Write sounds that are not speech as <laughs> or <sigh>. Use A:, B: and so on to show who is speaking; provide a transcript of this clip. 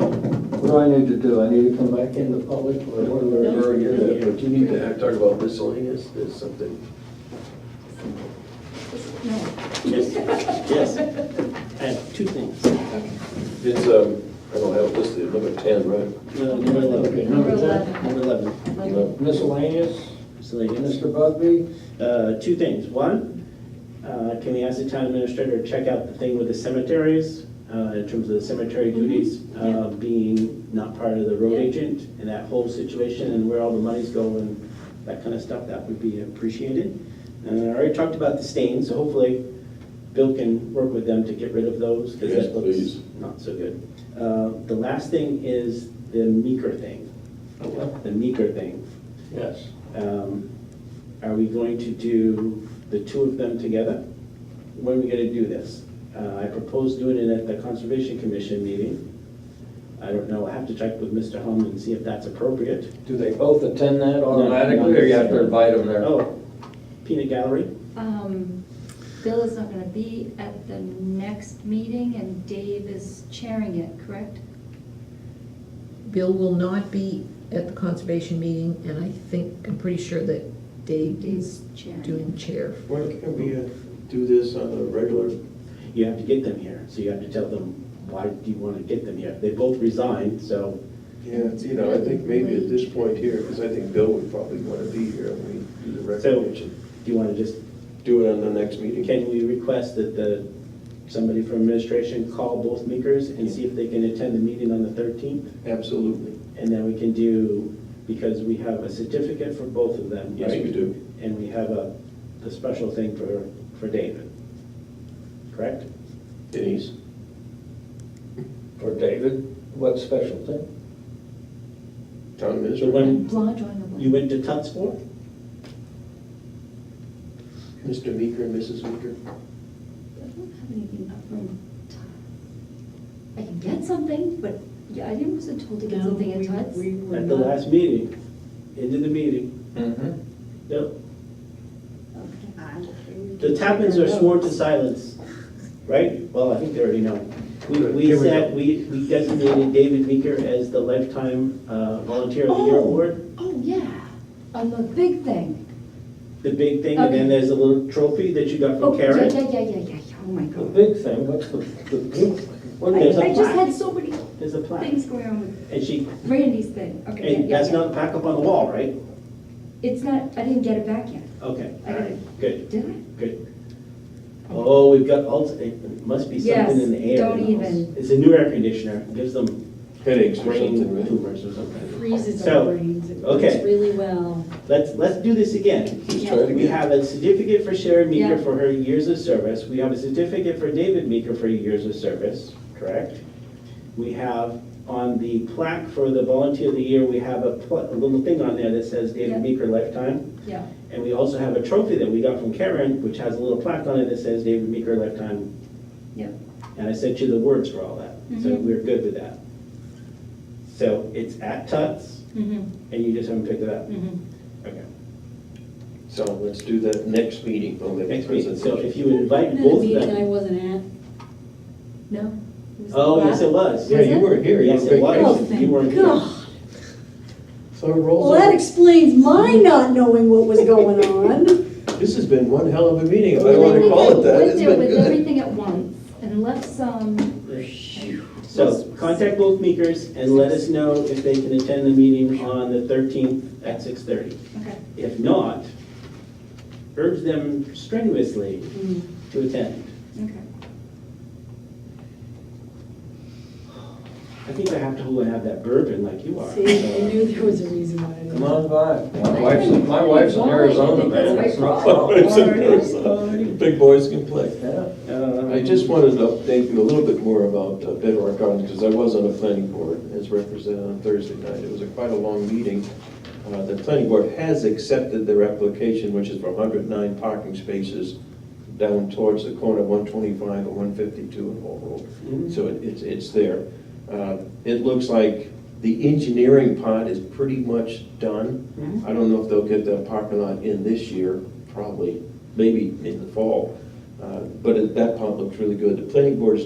A: What do I need to do? I need to come back into public or what do I-
B: Or you you need to act- talk about miscellaneous, there's something.
C: Yes, yes. I have two things. Uh,
B: It's, um, I don't have it listed, number ten, right?
C: No, Number
A: Okay,
C: 11.
A: number
D: Number
A: ten.
D: 11.
C: Number 11.
B: No.
A: Miscellaneous,
C: Miscellaneous.
A: Mr. Bugby?
C: Uh, Two things. One, uh, can we ask the town administrator to check out the thing with the cemeteries uh, in terms of the cemetery duties
D: Mm-hmm. yeah.
C: uh, being not part of the road
D: Yeah.
C: agent and that whole situation and where all the monies go and that kind of stuff? That would be appreciated. And I already talked about the stains, so hopefully Bill can work with them to get rid of those because
B: Yes,
C: that looks
B: please.
C: not so good. Uh, The last thing is the meeker thing, the meeker thing.
A: Yes.
C: Um, Are we going to do the two of them together? When are we gonna do this? Uh, I proposed doing it at the Conservation Commission meeting. I don't know, I have to check with Mr. Hum and see if that's appropriate.
A: Do they both attend that
C: No, not
A: automatically or you have to
C: necessarily.
A: invite them there?
C: Oh, peanut gallery?
D: Um, Bill is not gonna be at the next meeting and Dave is chairing it, correct?
E: Bill will not be at the conservation meeting, and I think, I'm pretty sure that Dave
D: Dave's
E: is
D: chairing.
E: doing chair.
B: Why can't we uh, do this on a regular?
C: You have to get them here, so you have to tell them, why do you wanna get them here? They both resigned, so,
B: Yeah, you know, I think maybe at this point here, because I think Bill would probably want to be here and we do the
C: so,
B: recommendation.
C: do you wanna just
B: Do it on the next meeting.
C: Can we request that the, somebody from administration call both makers and see if they can attend the meeting on the 13th?
B: Absolutely.
C: And then we can do, because we have a certificate for both of them,
B: Yes, we
C: right?
B: do.
C: And we have a, the special thing for, for David, correct?
B: Denise?
A: For David, what special thing?
B: Town
C: So
B: administrator?
C: when
D: Blah, drawing a blank.
C: you went to Tuts for?
B: Mr. Meeker and Mrs. Meeker?
D: I don't have anything up from Todd. I can get something, but, yeah, I didn't, wasn't told to get
F: No,
D: something at
F: we-
D: Todd's.
F: we were
C: At the
F: not-
C: last meeting, into the meeting,
A: Mm-hmm.
C: no,
D: Okay.
C: the Tappins are sworn to silence, right? Well, I think they already know. We,
B: Good,
C: we
B: here we
C: said,
B: go.
C: we we designated David Meeker as the lifetime uh, volunteer of the year
D: Oh.
C: award.
D: Oh, yeah, on the big thing.
C: the big thing, and then
D: Okay.
C: there's a little trophy that you got
D: Oh,
C: from
D: yeah, Yeah,
C: Karen.
D: yeah, yeah, yeah, yeah, oh
A: The
D: my God.
A: big thing, what's the, the big thing?
C: Well, there's a
D: I I just
C: plaque,
D: had so many
C: there's a plaque,
D: things going on with
C: and she,
D: Randy's thing, okay. yeah,
C: and
D: yeah,
C: that's
D: yeah.
C: not back up on the wall, right?
D: It's not, I didn't get it back yet,
C: Okay,
D: I
C: all
D: got
C: right,
D: it.
C: good,
D: did I?
C: good. Oh, we've got, alt- it must be something in the air.
D: Yes, don't
C: in the house.
D: even.
C: It's a new air conditioner, gives them
B: Headaches or
C: brain
B: something, right?
C: tumors or something.
F: freezes
C: So,
F: our brains. It works
C: okay.
F: really well.
C: Let's, let's do this again.
B: Just try it
C: We
B: again.
C: have a certificate for Sharon Meeker
D: Yeah.
C: for her years of service. We have a certificate for David Meeker for years of service, correct? We have on the plaque for the volunteer of the year, we have a pla- a little thing on there that says
D: Yeah.
C: David Meeker lifetime.
D: Yeah,
C: And we also have a trophy that we got from Karen, which has a little plaque on it that says David Meeker lifetime.
D: Yep.
C: And I sent you the words for all that, so
D: Mhm.
C: we're good with that. So it's at Tuts,
D: mm-hmm,
C: and you just haven't picked it up?
D: mm-hmm.
C: Okay.
B: So let's do that next meeting. We'll make a
C: Next meeting, so
B: presentation.
C: if you would invite
F: At a
C: both of
F: meeting I
C: them.
F: wasn't at.
D: No? it was
C: Oh,
D: the
C: yes, it
D: last-
C: was.
B: Yeah, you weren't here. You
C: Yes,
B: were
C: it
B: vacationing.
C: was. You weren't here.
F: God.
B: So it rolls
F: Well, that
B: over.
F: explains my not knowing what was going on.
B: This has been one hell of a meeting, if I
D: Well,
B: want
D: we
B: to call it that.
D: went
B: It's
D: there
B: been
D: With
B: <laughs> good.
D: everything at once and left some.
C: So contact both Meekers and let us know if they can attend the meeting on the 13th at 6:30.
D: Okay.
C: If not, urge them strenuously
F: Hmm.
C: to attend.
D: Okay.
C: I think I have to hold and have that bourbon like you are.
F: See, I knew there was a reason why I didn't.
A: Come on by. My wife's, my wife's in Arizona, man. That's no <laughs> problem.
B: It's embarrassing. Big boys can play.
A: Yeah.
C: Um,
B: I just wanted to update you a little bit more about uh, Bedrock Gardens, because I was on the planning board as represented on Thursday night. It was a quite a long meeting. Uh, The planning board has accepted their application, which is for 109 parking spaces down towards the corner of 125 and 152 in Hall Road.
C: Mhm.
B: So it- it's, it's there. Uh, It looks like the engineering part is pretty much done.
C: Mhm.
B: I don't know if they'll get that parking lot in this year, probably, maybe in the fall. Uh, But it- that part looks really good. The planning board is